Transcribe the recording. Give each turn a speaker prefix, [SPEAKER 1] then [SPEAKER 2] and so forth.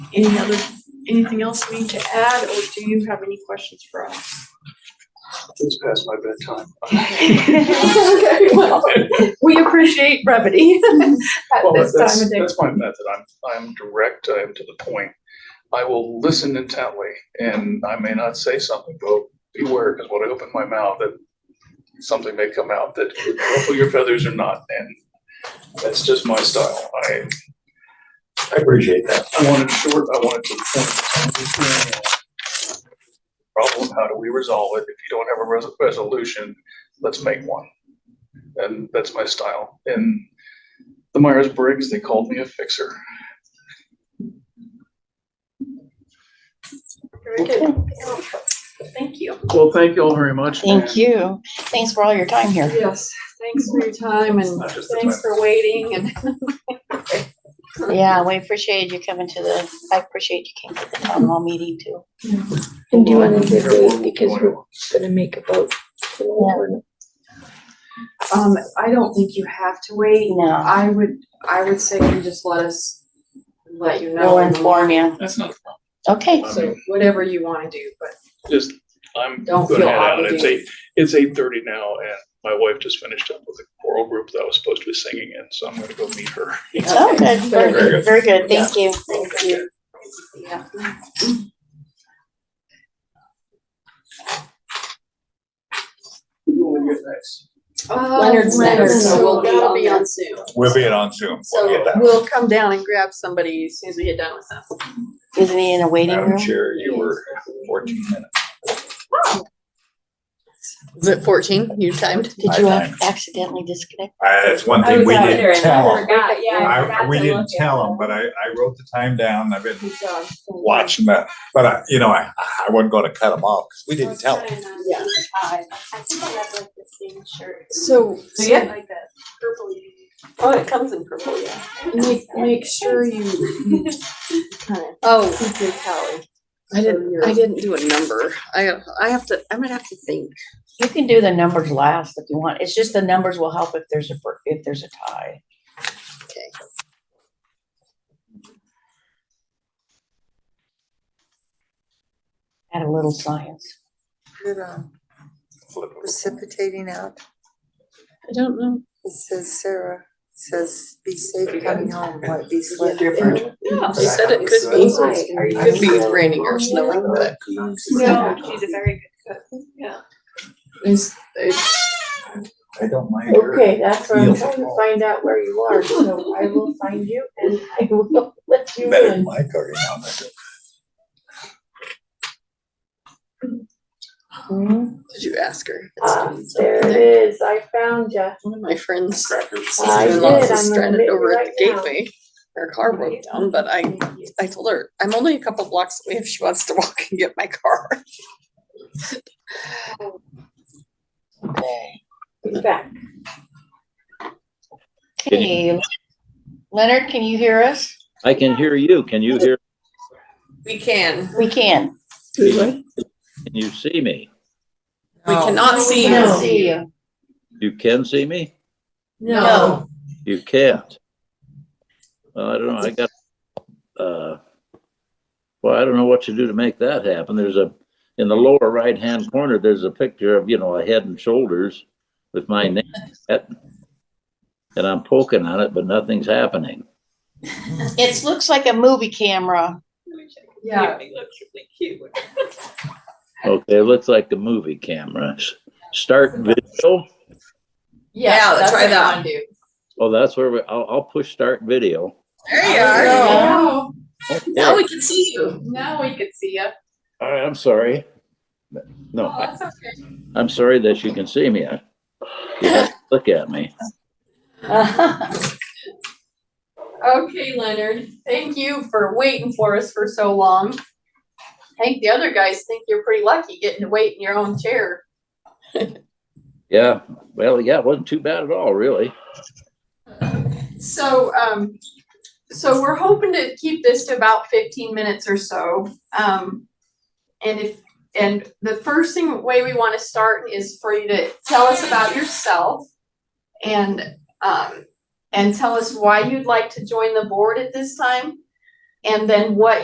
[SPEAKER 1] Any other, anything else we need to add, or do you have any questions for us?
[SPEAKER 2] It's past my bedtime.
[SPEAKER 1] Okay, well, We appreciate brevity at
[SPEAKER 2] Well,
[SPEAKER 1] this
[SPEAKER 2] that's-
[SPEAKER 1] time of day.
[SPEAKER 2] That's my method. I'm, I'm direct, I am to the point. I will listen intently and I may not say something, but beware, because when I open my mouth, that something may come out that could ruffle your feathers or not, and that's just my style. I,
[SPEAKER 3] I appreciate that.
[SPEAKER 2] I want it short, I want it to the point. Problem, how do we resolve it? If you don't have a res- resolution, let's make one. And that's my style. And the Myers Briggs, they called me a fixer.
[SPEAKER 1] Very good. Thank you.
[SPEAKER 2] Well, thank you all very much.
[SPEAKER 4] Thank you. Thanks for all your time here.
[SPEAKER 1] Yes, thanks for your time and
[SPEAKER 2] Not just the
[SPEAKER 1] thanks
[SPEAKER 2] time.
[SPEAKER 1] for waiting and
[SPEAKER 4] Yeah, we appreciated you coming to the, I appreciate you came to the town hall meeting too.
[SPEAKER 5] And do you want to give those because we're gonna make a vote? for the warrant?
[SPEAKER 1] Um, I don't think you have to wait.
[SPEAKER 4] No,
[SPEAKER 1] I would, I would say you just let us, let you know.
[SPEAKER 4] we'll inform you.
[SPEAKER 2] That's not,
[SPEAKER 4] Okay,
[SPEAKER 1] So whatever you want to do, but
[SPEAKER 2] just, I'm
[SPEAKER 1] Don't
[SPEAKER 2] gonna
[SPEAKER 1] feel
[SPEAKER 2] head out. It's
[SPEAKER 1] obligated.
[SPEAKER 2] eight, it's eight thirty now and my wife just finished up with a choral group that I was supposed to be singing in, so I'm gonna go meet her.
[SPEAKER 4] oh, good, very
[SPEAKER 3] Very
[SPEAKER 4] good,
[SPEAKER 3] good.
[SPEAKER 4] very good. Thank you.
[SPEAKER 1] thank you. Yeah.
[SPEAKER 2] Who will we get next?
[SPEAKER 5] Leonard's next,
[SPEAKER 1] Oh, So
[SPEAKER 5] so
[SPEAKER 1] we'll
[SPEAKER 5] we'll
[SPEAKER 1] be
[SPEAKER 5] be on
[SPEAKER 1] on
[SPEAKER 5] that.
[SPEAKER 1] Zoom.
[SPEAKER 3] We'll be on Zoom. We'll
[SPEAKER 1] So
[SPEAKER 3] get that.
[SPEAKER 1] we'll come down and grab somebody as soon as we get done with them.
[SPEAKER 4] Isn't he in a waiting
[SPEAKER 3] Madam
[SPEAKER 4] room?
[SPEAKER 3] Chair, you were fourteen minutes.
[SPEAKER 5] Is it fourteen? You timed?
[SPEAKER 4] Did you accidentally disconnect?
[SPEAKER 3] Uh, That's one thing we didn't tell them. I, we
[SPEAKER 6] look
[SPEAKER 3] didn't
[SPEAKER 6] at
[SPEAKER 3] tell them, but I, I wrote the time down. I've been watching that. But I, you know, I, I wasn't gonna cut them off because we didn't tell them.
[SPEAKER 1] Yeah.
[SPEAKER 6] I think I have like the same shirt.
[SPEAKER 5] So,
[SPEAKER 1] So yeah,
[SPEAKER 6] Like that purple.
[SPEAKER 1] oh, it comes in purple, yeah. Make, make sure you, you kind of
[SPEAKER 5] oh,
[SPEAKER 1] keep your tally.
[SPEAKER 5] I didn't, I didn't do a number. I, I have to, I'm gonna have to think.
[SPEAKER 4] You can do the numbers last if you want. It's just the numbers will help if there's a, fir- if there's a tie. Add a little science.
[SPEAKER 7] Put it on
[SPEAKER 3] Flip it.
[SPEAKER 7] um, precipitating out.
[SPEAKER 5] I don't know.
[SPEAKER 7] It says Sarah, It says be safe coming home, what be swift.
[SPEAKER 1] Yeah.
[SPEAKER 5] She said it could be, could be raining or snowing, but
[SPEAKER 1] No,
[SPEAKER 6] she's a very good cook. Yeah.
[SPEAKER 5] it's, it's,
[SPEAKER 3] I don't mind her.
[SPEAKER 1] Okay, that's what I'm
[SPEAKER 3] Feels
[SPEAKER 1] trying to
[SPEAKER 3] small.
[SPEAKER 1] find out where you are, so I will find you and I will let you
[SPEAKER 3] Better than
[SPEAKER 1] in.
[SPEAKER 3] my cooking on that.
[SPEAKER 5] did you ask her?
[SPEAKER 1] Ah, Um, There it is, I found you.
[SPEAKER 5] One of my friends,
[SPEAKER 3] Crackers.
[SPEAKER 1] I did,
[SPEAKER 5] sister-in-law
[SPEAKER 1] I'm
[SPEAKER 5] is stranded
[SPEAKER 1] admitting
[SPEAKER 5] over at
[SPEAKER 1] right
[SPEAKER 5] the
[SPEAKER 1] now.
[SPEAKER 5] gateway. Her car broke down, but I, I told her, I'm only a couple blocks away if she wants to walk and get my car.
[SPEAKER 1] Be back.
[SPEAKER 4] Okay, Leonard, can you hear us?
[SPEAKER 8] I can hear you. Can you hear,
[SPEAKER 5] We can.
[SPEAKER 4] We can.
[SPEAKER 8] can you see me?
[SPEAKER 5] We cannot see
[SPEAKER 4] Can't
[SPEAKER 5] you.
[SPEAKER 4] see you.
[SPEAKER 8] You can see me?
[SPEAKER 4] No.
[SPEAKER 8] You can't. Well, I don't know. I got, uh, well, I don't know what to do to make that happen. There's a, in the lower right-hand corner, there's a picture of, you know, a head and shoulders with my name. on it. And I'm poking on it, but nothing's happening.
[SPEAKER 4] It looks like a movie camera.
[SPEAKER 1] Yeah.
[SPEAKER 8] Okay, it looks like the movie camera. S- Start video.
[SPEAKER 5] Yeah,
[SPEAKER 1] that's
[SPEAKER 5] try
[SPEAKER 1] what I
[SPEAKER 5] that.
[SPEAKER 1] wanna do.
[SPEAKER 8] Oh, that's where we, I'll, I'll push start video.
[SPEAKER 5] There you are.
[SPEAKER 1] Now
[SPEAKER 5] Now we can see you.
[SPEAKER 1] now we can see you.
[SPEAKER 8] All right, I'm sorry. No,
[SPEAKER 5] Oh,
[SPEAKER 8] I- I'm sorry that you can see me. I- You have to look at me.
[SPEAKER 1] Okay, Leonard, thank you for waiting for us for so long. I think the other guys think you're pretty lucky getting to wait in your own chair.
[SPEAKER 8] Yeah, well, yeah, it wasn't too bad at all, really.
[SPEAKER 1] So, um, so we're hoping to keep this to about fifteen minutes or so. Um, and if, and the first thing, way we want to start is for you to tell us about yourself and, um, and tell us why you'd like to join the board at this time. And then what